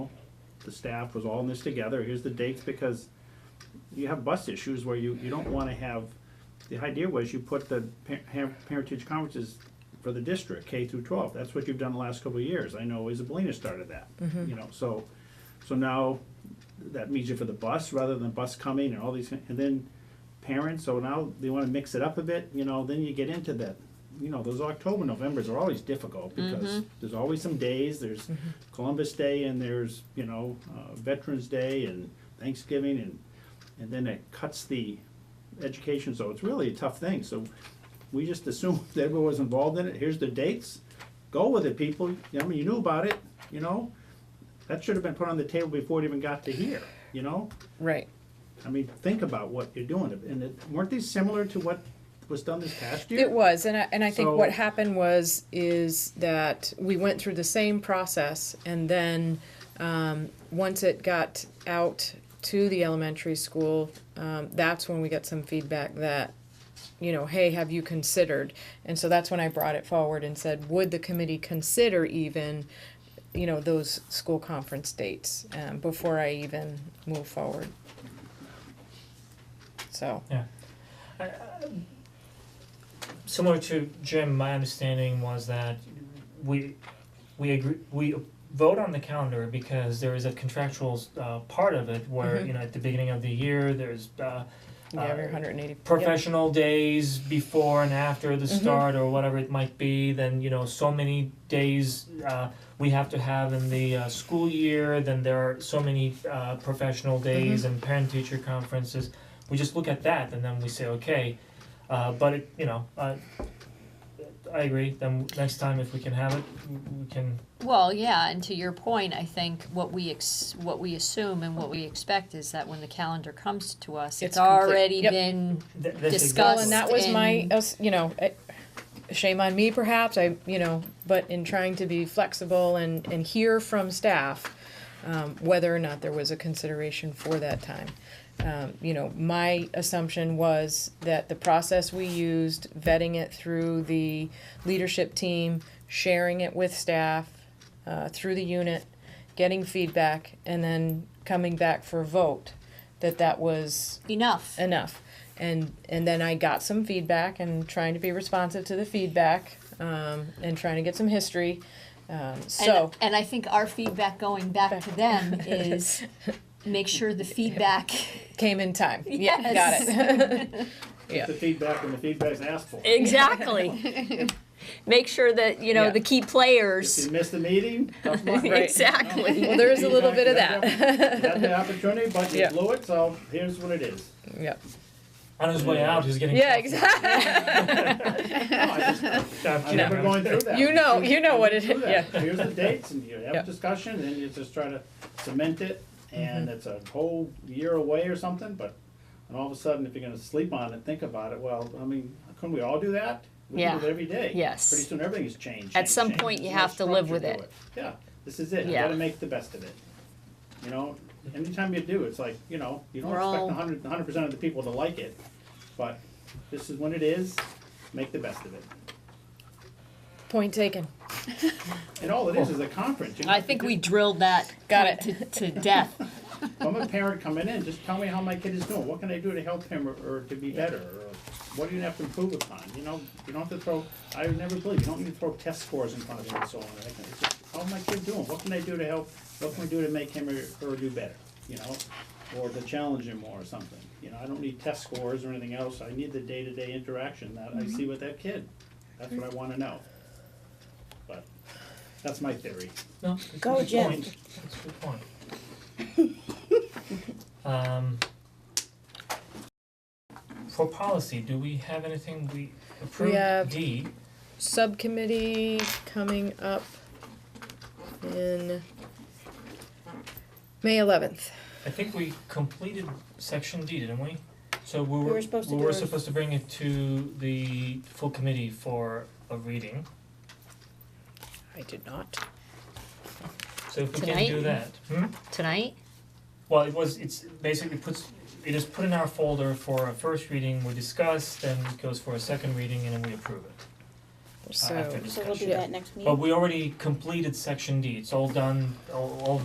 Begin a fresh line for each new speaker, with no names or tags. the staff was all in this together, here's the dates, because you have bus issues where you, you don't wanna have, the idea was you put the pa- ha- parentage conferences for the district, K through twelve, that's what you've done the last couple of years, I know Isabelina started that, you know, so, so now that means you for the bus, rather than bus coming and all these, and then parents, so now they wanna mix it up a bit, you know, then you get into that. You know, those October, Novembers are always difficult because there's always some days, there's Columbus Day and there's, you know, uh, Veterans Day and Thanksgiving and, and then it cuts the education, so it's really a tough thing, so we just assumed that everyone was involved in it, here's the dates, go with it, people, I mean, you knew about it, you know? That should have been put on the table before it even got to here, you know?
Right.
I mean, think about what you're doing, and it, weren't these similar to what was done this past year?
It was, and I, and I think what
So-
happened was is that we went through the same process, and then um, once it got out to the elementary school, um, that's when we got some feedback that, you know, hey, have you considered? And so that's when I brought it forward and said, would the committee consider even, you know, those school conference dates um, before I even move forward? So
similar to Jim, my understanding was that we we agree we vote on the calendar because there is a contractual uh part of it where you know at the beginning of the year there's uh
you have
uh,
your 180 yep.
professional days before and after
Mm-hmm.
the start or whatever it might be then you know so many days uh, we have to have in the uh, school year then there are so many uh, professional days
Mm-hmm.
and parent teacher conferences we just look at that and then we say okay uh, but it, you know uh, i agree then next time if we can have it we- we can
Well, yeah, and to your point, I think what we ex- what we assume and what we expect is that when the calendar comes to us, it's,
It's complete.
already
Yep.
been
th- that's
Discuss
Well, and that
discussed
was my,
and-
us- you know, it- shame on me perhaps, I, you know, but in trying to be flexible and, and hear from staff, um, whether or not there was a consideration for that time. Um, you know, my assumption was that the process we used, vetting it through the leadership team, sharing it with staff, uh, through the unit, getting feedback, and then coming back for a vote, that that was
enough.
enough. And and then I got some feedback and trying to be responsive to the feedback um, and trying to get some history. Um, so
and, and I think our feedback going back to them is make sure the feedback
came in time.
Yes.
Yeah, got it. Yeah.
Get the feedback when the feedback's asked for.
Exactly. Make sure that, you know,
Yeah.
the key
If
players.
you miss the meeting, tough luck.
Right.
Exactly.
well, there is a little bit of
You
that.
had the opportunity, but you
Yeah.
blew it, so here's what it is.
yep.
on his way out he's getting
Yeah,
coffee.
No,
exactly.
I just,
I'm
I remember
kidding.
going through that.
you know, you know what it
Through
is. Yeah.
that. Here's the dates, and you
Yeah.
have discussion, and you just try to cement it,
Mm-hmm.
and it's a whole year away or something, but, and all of a sudden, if you're gonna sleep on it, think about it, well, I mean, couldn't we all do that? We do
Yeah.
it every day.
Yes.
Pretty soon, everything has changed.
At
changed,
some
changed.
point, you
There's no
have to live
structure
with
to
it.
Yeah, this is it, you
Yeah.
gotta make the best of it, you know, anytime you do, it's like, you know, you don't
We're
expect
all-
a hundred, hundred percent of the people to like it, but this is when it is, make the best of it.
Point taken.
And all it is is a conference, you know.
I think we drilled that
Got
point to, to death.
If I'm a parent coming in, just tell me how my kid is doing, what can I do to help him or, or to be better, or what do you have to improve upon, you know? You don't have to throw, I would never believe, you don't need to throw test scores in front of him and so on, I think, it's just, how's my kid doing, what can I do to help, what can we do to make him or, or do better, you know? Or to challenge him more or something, you know, I don't need test scores or anything else, I need the day-to-day interaction that I
Mm-hmm.
see with that kid, that's what I wanna know. But, that's my theory.
No, it's a
Go,
good
Jim.
point. It's a good point. Um, for policy, do we have anything we approved
have-
D?
subcommittee coming up in May 11th.
I think we completed section D, didn't we? So we were,
were supposed to
we
do
were
ours.
supposed to bring it to the full committee for a reading,
I did not.
so if we can do
Tonight?
that, hmm?
Tonight?
Well, it was, it's basically puts, it is put in our folder for a first reading, we discuss, then it goes for a second reading, and then we approve it, uh, after
So
discussion.
So we'll do that next meeting.
But we already completed section D, it's all done, all all